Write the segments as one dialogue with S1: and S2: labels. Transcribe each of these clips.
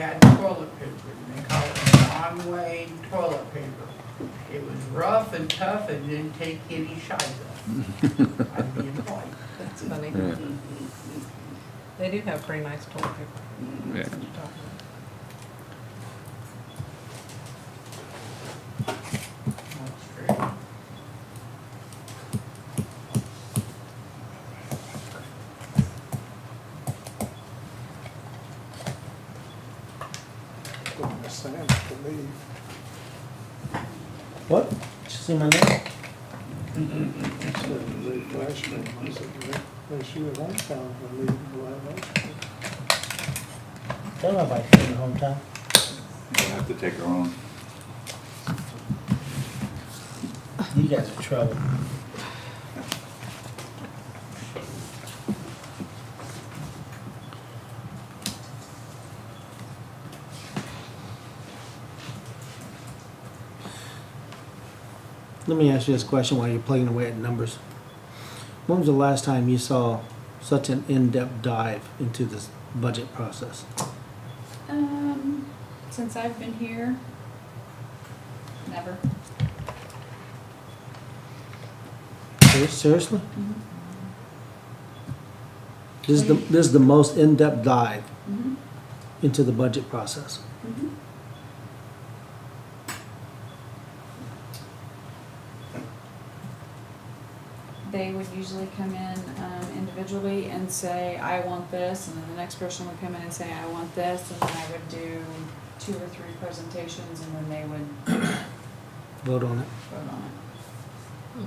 S1: had toilet paper, and they called it Conway toilet paper. It was rough and tough and didn't take any shite off. I'd be employed.
S2: That's funny.
S3: Yeah.
S2: They do have pretty nice toilet paper.
S3: Yeah.
S2: That's what you're talking about.
S1: That's true.
S4: Well, Miss Sam to leave.
S5: What? Did you see my name?
S4: She said to leave last year. I said, "Well, well, she was on town to leave the last year.
S5: Tell nobody from your hometown.
S6: We'll have to take her on.
S5: You guys are trouble. Let me ask you this question while you're plugging away at numbers. When was the last time you saw such an in-depth dive into this budget process?
S7: Um, since I've been here, never.
S5: Ser- Seriously? This is the, this is the most in-depth dive
S7: Mhm.
S5: into the budget process.
S7: Mhm. They would usually come in um, individually and say, I want this, and then the next person would come in and say, I want this, and then I would do two or three presentations, and then they would
S5: Vote on it.
S7: vote on it.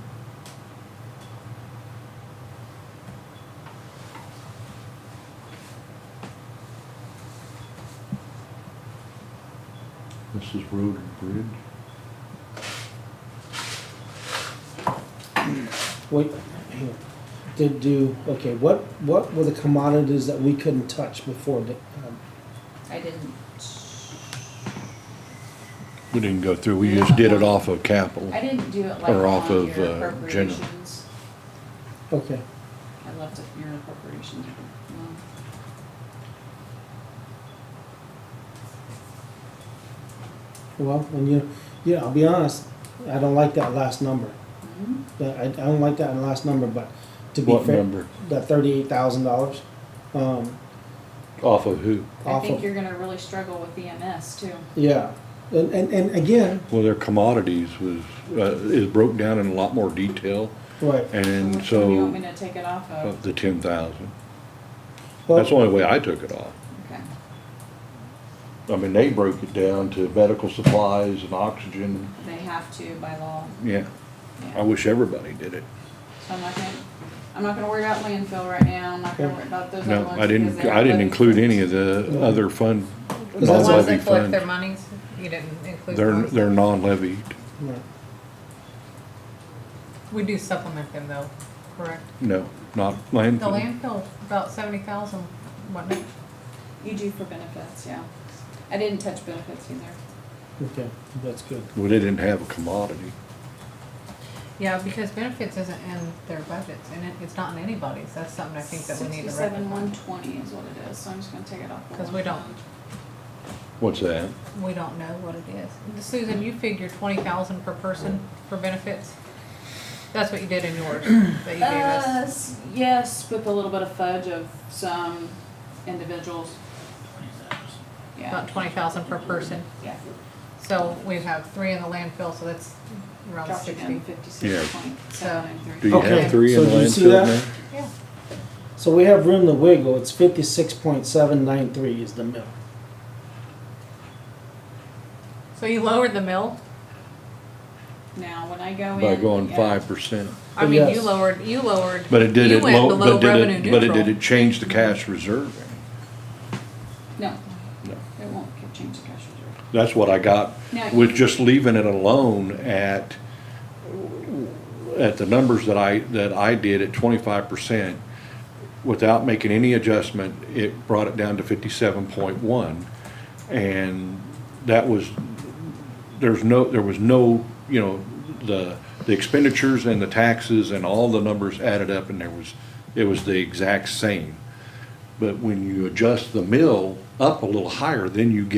S3: This is road and bridge.
S5: Wait, hang on. Did do, okay, what, what were the commodities that we couldn't touch before? the- um,
S7: I didn't,
S3: We didn't go through, we just did it off of capital.
S7: I didn't do it like
S3: Or off
S7: on
S3: of,
S7: your
S3: uh, general.
S7: appropriations.
S5: Okay,
S7: I left it near appropriations. um,
S5: well, and you, yeah, I'll be honest, I don't like that last number.
S2: Mm-hmm.
S7: mhm.
S5: That- I, I don't like that last number, but to be
S3: What
S5: fair,
S3: number?
S5: that thirty-eight thousand dollars, um,
S3: Off of who?
S7: I
S5: off
S7: think
S5: of,
S7: you're gonna really struggle with EMS too.
S5: yeah. And, and, and again,
S3: Well, their commodities was, uh, is broke down in a lot more detail,
S5: right,
S3: and
S7: Which one do you want me
S3: so,
S7: to take it off
S3: uh,
S7: of?
S3: the ten thousand. That's the
S5: well,
S3: only way I took it off.
S7: Okay,
S3: I mean, they broke it down to medical supplies and oxygen,
S7: they have to by law,
S3: yeah. I
S7: yeah.
S3: wish everybody did it.
S7: So I'm not gonna, I'm not gonna worry about landfill right now, I'm not gonna worry about those other
S3: No,
S7: ones.
S3: I
S7: because
S3: didn't,
S7: they
S3: I didn't
S7: already-
S3: include any of the other fund,
S5: Is that-
S2: The ones that
S3: levy
S2: collect their
S3: fund.
S2: monies, you didn't include
S3: they're,
S2: those.
S3: they're non-levied.
S5: right.
S2: We do supplement them though, correct?
S3: No, not
S2: The
S3: landfill.
S2: landfill, about seventy thousand, wasn't it?
S7: You do for benefits, yeah. I didn't touch benefits either.
S5: okay, that's good.
S3: Well, they didn't have a commodity.
S2: Yeah, because benefits isn't in their budgets and it, it's not in anybody's. That's something I think that we need to
S7: Sixty-seven, one
S2: rectify.
S7: twenty is what it is, so I'm just gonna take it off. the
S2: 'Cause we don't-
S7: fund.
S3: What's that?
S2: We don't know what it is. Mm-hmm. Susan, you figure twenty thousand per person for benefits? That's what you did in yours, that you gave
S7: Uh,
S2: us.
S7: s- yes, with a little bit of fudge of some individuals.
S2: About
S7: Yeah,
S2: twenty thousand per person.
S7: yeah.
S2: So we have three in the landfill, so that's around
S7: Dropped it
S2: sixty.
S7: down fifty-six point seven nine
S3: Do
S7: three.
S3: you
S5: Okay,
S3: have three in
S5: so
S3: the
S5: do you see
S3: landfill
S5: that?
S3: now?
S2: Yeah,
S5: So we have room to wiggle, it's fifty-six point seven nine three is the mill.
S2: so you lowered the mill?
S7: Now, when I
S2: Oh,
S7: go in.
S3: By going
S7: yeah,
S3: five percent.
S2: I mean, you
S5: Yes.
S2: lowered, you lowered.
S3: But it did
S2: you
S3: it,
S2: went
S3: low-
S2: below
S3: but did
S2: revenue
S3: it, but it did
S2: neutral.
S3: it change the cash reserve?
S7: No,
S3: No.
S7: it won't change the cash reserve.
S3: That's what I got,
S7: No.
S3: with just leaving it alone at, at the numbers that I, that I did at twenty-five percent. Without making any adjustment, it brought it down to fifty-seven point one. And that was, there's no, there was no, you know, the, the expenditures and the taxes and all the numbers added up and there was, it was the exact same. But when you adjust the mill up a little higher, then you get